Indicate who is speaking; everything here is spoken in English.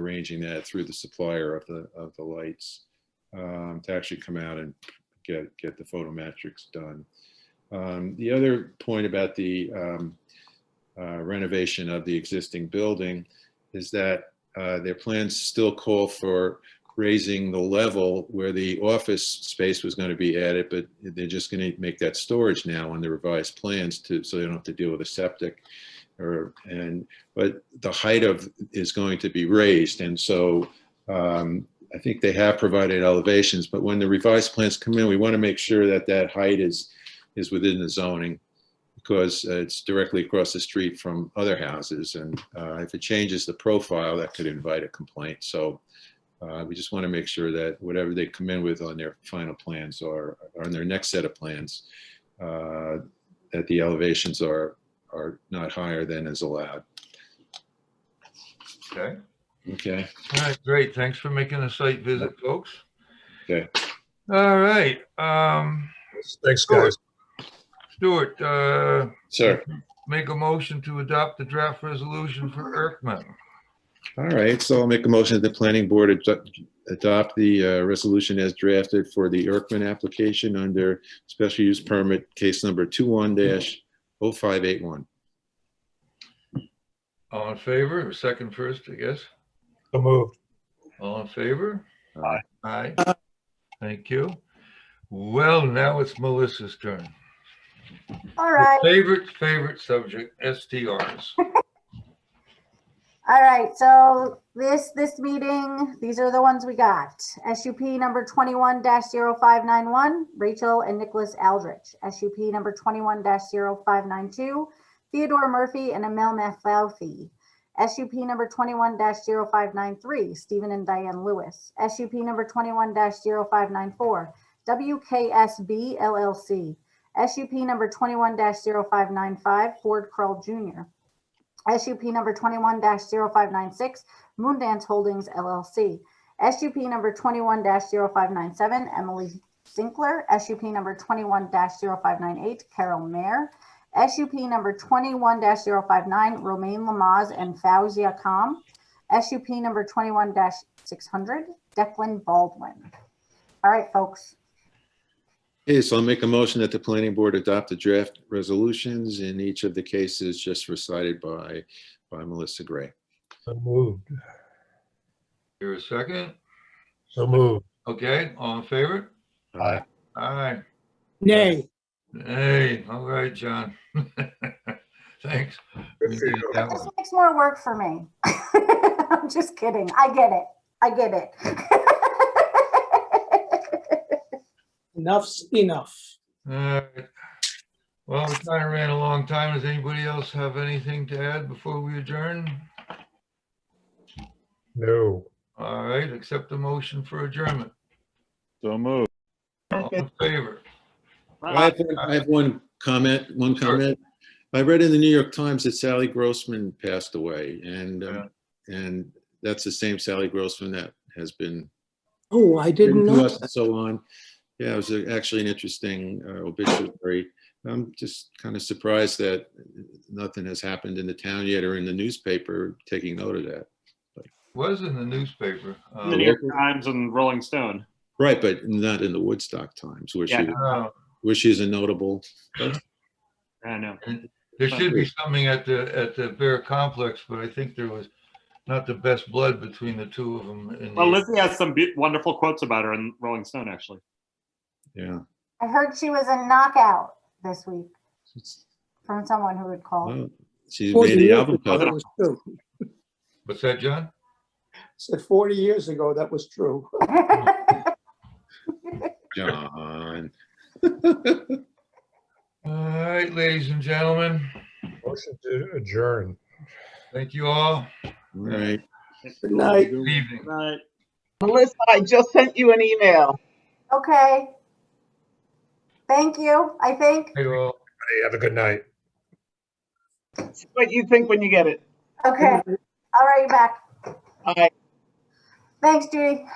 Speaker 1: arranging that through the supplier of the, of the lights um, to actually come out and get, get the photometrics done. Um, The other point about the um, uh, renovation of the existing building is that uh, their plans still call for raising the level where the office space was going to be added, but they're just going to make that storage now on the revised plans to, so they don't have to deal with a septic. Or, and, but the height of, is going to be raised, and so um, I think they have provided elevations, but when the revised plans come in, we want to make sure that that height is, is within the zoning because uh, it's directly across the street from other houses, and uh, if it changes the profile, that could invite a complaint. So uh, we just want to make sure that whatever they come in with on their final plans or or on their next set of plans, uh, that the elevations are, are not higher than is allowed.
Speaker 2: Okay.
Speaker 1: Okay,
Speaker 2: All right, great. Thanks for making a site visit, folks.
Speaker 1: Okay.
Speaker 2: All right, um,
Speaker 3: Thanks, guys.
Speaker 2: Stuart, uh,
Speaker 1: sir.
Speaker 2: make a motion to adopt the draft resolution for Erkman.
Speaker 1: All right, so I'll make a motion that the planning board ad- adopt the uh, resolution as drafted for the Erkman application under special use permit case number 21-0581.
Speaker 2: All in favor, or second first, I guess?
Speaker 3: So moved.
Speaker 2: All in favor?
Speaker 3: Aye.
Speaker 2: Aye. Thank you. Well, now it's Melissa's turn.
Speaker 4: All right,
Speaker 2: Favorite, favorite subject, STRs.
Speaker 4: all right. So this, this meeting, these are the ones we got. SUP number twenty-one 591 Rachel and Nicholas Aldrich. SUP number twenty-one 592 Theodore Murphy and Emil Mathauthi. SUP number twenty-one 593 Stephen and Diane Lewis. SUP number twenty-one 594 WKSB LLC. SUP number twenty-one 595 Ford Krull Jr. SUP number twenty-one 596 Moondance Holdings LLC. SUP number twenty-one 597 Emily Zinkler. SUP number twenty-one 598 Carol Mayer. SUP number twenty-one 509 Romaine Lamaze and Fauzia Com. SUP number twenty-one six hundred, Declan Baldwin. All right, folks.
Speaker 1: Okay, so I'll make a motion that the planning board adopt the draft resolutions in each of the cases just recited by, by Melissa Gray.
Speaker 3: So moved.
Speaker 2: Here a second.
Speaker 3: So moved.
Speaker 2: Okay, all in favor?
Speaker 3: Aye.
Speaker 2: Aye.
Speaker 5: Nay,
Speaker 2: Hey, all right, John. Thanks. You did that
Speaker 4: This
Speaker 2: one.
Speaker 4: makes more work for me. I'm just kidding. I get it. I get it.
Speaker 5: enough's enough.
Speaker 2: All right. Well, we kind of ran a long time. Does anybody else have anything to add before we adjourn?
Speaker 3: No.
Speaker 2: All right, accept the motion for adjournment.
Speaker 6: So moved.
Speaker 2: All in favor?
Speaker 1: I have, one- I have one comment, one
Speaker 2: Sure.
Speaker 1: comment. I read in the New York Times that Sally Grossman passed away and, um, and that's the same Sally Grossman that has been
Speaker 5: Oh, I didn't
Speaker 1: written to
Speaker 5: know.
Speaker 1: us and so on. Yeah, it was a- actually an interesting uh, obituary. I'm just kind of surprised that nothing has happened in the town yet or in the newspaper taking note of that.
Speaker 2: Was in the newspaper.
Speaker 7: in the
Speaker 2: Um,
Speaker 7: New York Times and Rolling Stone.
Speaker 1: Right, but not in the Woodstock Times, where she,
Speaker 7: Yeah.
Speaker 2: uh,
Speaker 1: where she's a notable.
Speaker 7: I don't know.
Speaker 2: There should be something at the, at the Bear Complex, but I think there was not the best blood between the two of them. in the-
Speaker 7: Well, Lizzie has some be- wonderful quotes about her in Rolling Stone, actually.
Speaker 1: Yeah.
Speaker 4: I heard she was a knockout this week
Speaker 1: It's-
Speaker 4: from someone who had called.
Speaker 1: well, She's
Speaker 5: 40
Speaker 1: made the
Speaker 5: years
Speaker 1: album
Speaker 5: ago,
Speaker 1: cover.
Speaker 5: that was true. I
Speaker 2: What's that, John?
Speaker 5: Said 40 years ago, that was true.
Speaker 1: John.
Speaker 2: All right, ladies and gentlemen,
Speaker 3: Motion to adjourn.
Speaker 2: thank you all.
Speaker 1: All right.
Speaker 5: Good night.
Speaker 2: Good evening.
Speaker 7: Right.
Speaker 8: Melissa, I just sent you an email.
Speaker 4: Okay. Thank you, I think.
Speaker 2: Hey, all.
Speaker 3: Hey, have a good night.
Speaker 8: See what you think when you get it.
Speaker 4: Okay, all right, you're back.
Speaker 8: All right.
Speaker 4: Thanks, Judy.